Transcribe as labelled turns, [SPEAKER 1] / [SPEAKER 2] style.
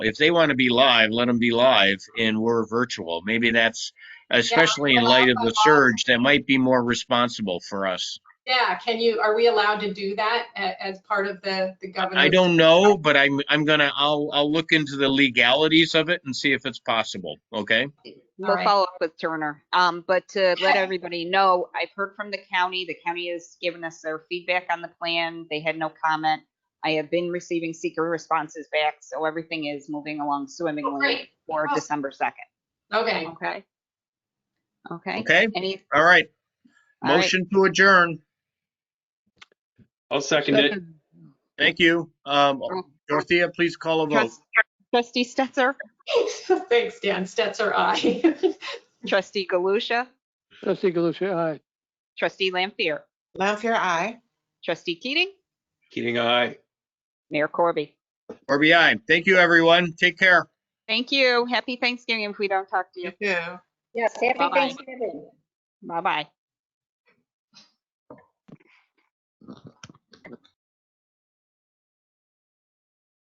[SPEAKER 1] If they want to be live, let them be live and we're virtual. Maybe that's, especially in light of the surge, that might be more responsible for us.
[SPEAKER 2] Yeah, can you, are we allowed to do that a- as part of the, the governor's?
[SPEAKER 1] I don't know, but I'm, I'm gonna, I'll, I'll look into the legalities of it and see if it's possible, okay?
[SPEAKER 2] All
[SPEAKER 3] We'll
[SPEAKER 2] right.
[SPEAKER 3] follow up with Turner. Um, but to let everybody know, I've heard from the county. The county has given us their feedback on the plan. They had no comment. I have been receiving seeker responses back, so everything is moving along
[SPEAKER 2] great.
[SPEAKER 3] swimmingly for
[SPEAKER 2] Awesome.
[SPEAKER 3] December 2nd.
[SPEAKER 2] Okay,
[SPEAKER 3] Okay? Okay?
[SPEAKER 1] Okay,
[SPEAKER 3] Any,
[SPEAKER 1] all right.
[SPEAKER 3] all right.
[SPEAKER 1] Motion to adjourn.
[SPEAKER 4] I'll second it.
[SPEAKER 1] Thank you. Um, Dorothea, please call a vote.
[SPEAKER 3] Trust- Trustee Stetser,
[SPEAKER 2] thanks, Dan. Stetser, aye.
[SPEAKER 3] trustee Galusha,
[SPEAKER 5] Trustee Galusha, aye.
[SPEAKER 3] trustee Lampier,
[SPEAKER 6] Lampier, aye.
[SPEAKER 3] trustee Keating,
[SPEAKER 4] Keating, aye.
[SPEAKER 3] Mayor Corby.
[SPEAKER 1] Or behind. Thank you, everyone. Take care.
[SPEAKER 3] Thank you. Happy Thanksgiving if we don't talk to you.
[SPEAKER 6] You too.
[SPEAKER 7] Yes, happy
[SPEAKER 3] Bye-bye.
[SPEAKER 7] Thanksgiving.
[SPEAKER 3] Bye-bye.